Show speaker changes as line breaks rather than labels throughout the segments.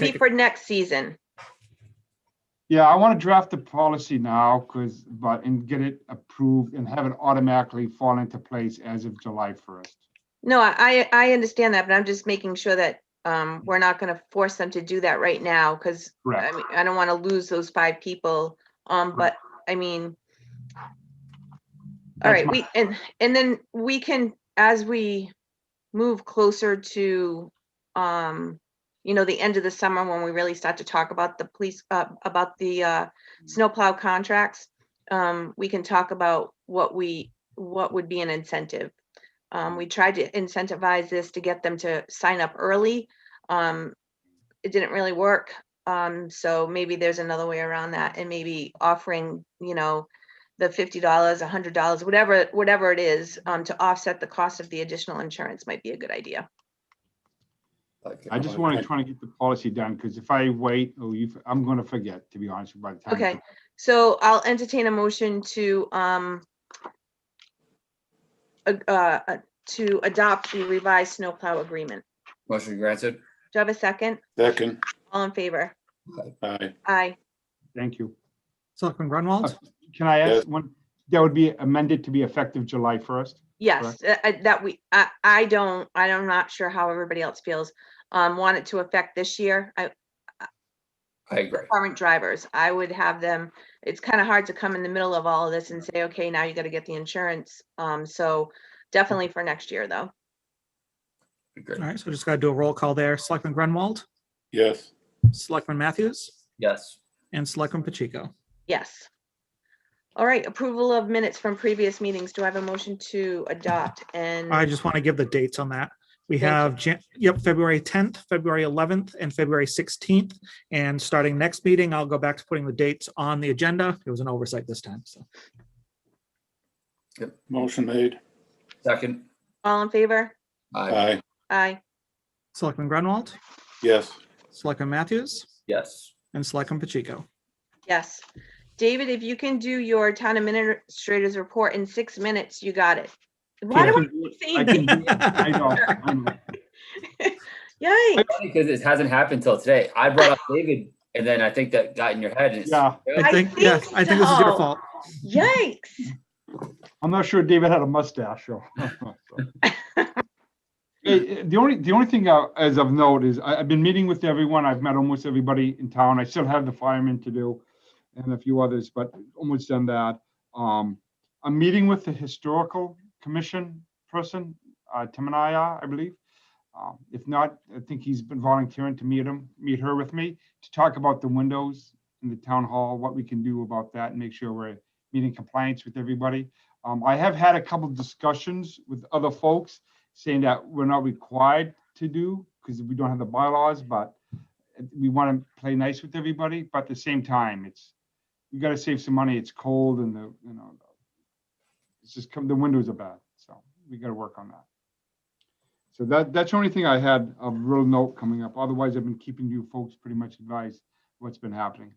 Be
take a-
for next season.
Yeah, I want to draft the policy now because, but, and get it approved and have it automatically fall into place as of July 1st.
No, I, I I understand that, but I'm just making sure that um, we're not going to force them to do that right now because I
Correct.
mean, I don't want to lose those five people. Um, but I mean, all
That's
right,
my-
we, and, and then we can, as we move closer to, um, you know, the end of the summer when we really start to talk about the police, uh, about the, uh, snowplow contracts, um, we can talk about what we, what would be an incentive. Um, we tried to incentivize this to get them to sign up early. Um, it didn't really work. Um, so maybe there's another way around that and maybe offering, you know, the fifty dollars, a hundred dollars, whatever, whatever it is, um, to offset the cost of the additional insurance might be a good idea.
I just want to try to get the policy done because if I wait, oh, you, I'm going to forget, to be honest, by the time.
Okay. So I'll entertain a motion to, um, a- uh, uh, to adopt the revised snowplow agreement.
Motion granted.
Do I have a second?
Second,
All in favor?
aye.
Aye.
Thank you.
Selectman Grunwald,
Can I
Yes.
ask one? That would be amended to be effective July 1st?
Yes, uh, uh, that we, I, I don't, I am not sure how everybody else feels. Um, want it to affect this year. I,
I agree.
current drivers, I would have them, it's kind of hard to come in the middle of all of this and say, okay, now you gotta get the insurance. Um, so definitely for next year, though.
Agree.
all right, so just gotta do a roll call there. Selectman Grunwald,
Yes,
Selectman Matthews,
Yes.
and Selectman Pacheco.
Yes. All right, approval of minutes from previous meetings. Do I have a motion to adopt and?
I just want to give the dates on that. We
Thank you.
have, Jan- yep, February 10th, February 11th, and February 16th. And starting next meeting, I'll go back to putting the dates on the agenda. It was an oversight this time, so.
motion made,
Second.
All in favor?
Uh,
I,
aye.
Aye.
Selectman Grunwald,
Yes,
Selectman Matthews,
yes.
and Selectman Pacheco.
Yes. David, if you can do your town administrator's report in six minutes, you got it. Why
I
do I
can do it. I
keep
can do it. I know, I know.
saying, yay?
Because it hasn't happened till today. I brought up David and then I think that got in your head. and it's-
Yeah,
I
I
think, yeah,
think
I think this is
so.
your fault.
Yikes.
I'm not sure David had a mustache, so. Hey, eh, The only, the only thing uh, as of note is I, I've been meeting with everyone. I've met almost everybody in town. I still have the firemen to do and a few others, but almost done that. Um, I'm meeting with the historical commission person, uh, Timanaya, I believe. Um, If not, I think he's been volunteering to meet him, meet her with me to talk about the windows in the town hall, what we can do about that and make sure we're meeting compliance with everybody. Um, I have had a couple discussions with other folks saying that we're not required to do because we don't have the bylaws, but we want to play nice with everybody, but at the same time, it's, you gotta save some money. It's cold and the, you know, it's just come, the windows are bad, so we gotta work on that. So that, that's the only thing I had a real note coming up. Otherwise, I've been keeping you folks pretty much advised what's been happening.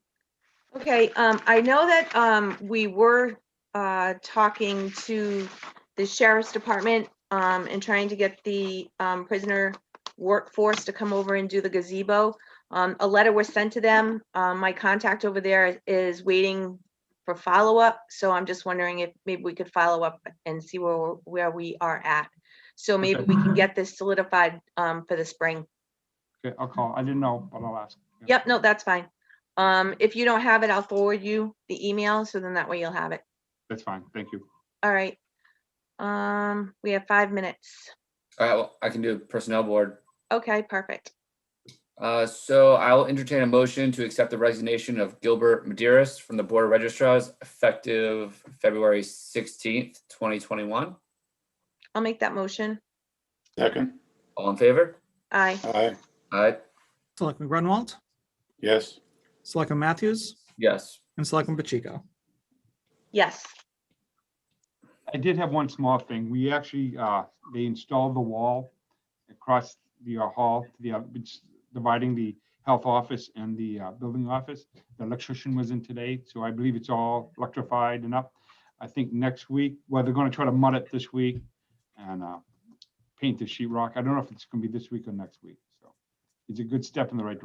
Okay, um, I know that, um, we were, uh, talking to the sheriff's department, um, and trying to get the, um, prisoner workforce to come over and do the gazebo. Um, a letter was sent to them. Um, my contact over there is waiting for follow-up, so I'm just wondering if maybe we could follow up and see where, we're- where we are at. So maybe we can get this solidified, um, for the spring.
Okay, I'll call. I didn't know, but I'll ask.
Yep, no, that's fine. Um, if you don't have it, I'll forward you the email, so then that way you'll have it.
That's fine. Thank you.
All right. Um, we have five minutes.
All right, well, I can do personnel board.
Okay, perfect.
Uh, so I will entertain a motion to accept the resignation of Gilbert Maderas from the Board of Registrars effective February sixteenth, twenty twenty-one.
I'll make that motion.
second,
All in favor?
Aye.
aye.
Aye,
Selectman Grunwald,
Yes,
Selectman Matthews,
yes.
and Selectman Pacheco.
Yes.
I did have one small thing. We actually, uh, they installed the wall across the uh, hall, the, uh, which dividing the health office and the, uh, building office. The electrician was in today, so I believe it's all electrified and up. I think next week, well, they're gonna try to mud it this week and, uh, paint the sheet rock. I don't know if it's gonna be this week or next week, so. It's a good step in the right direction.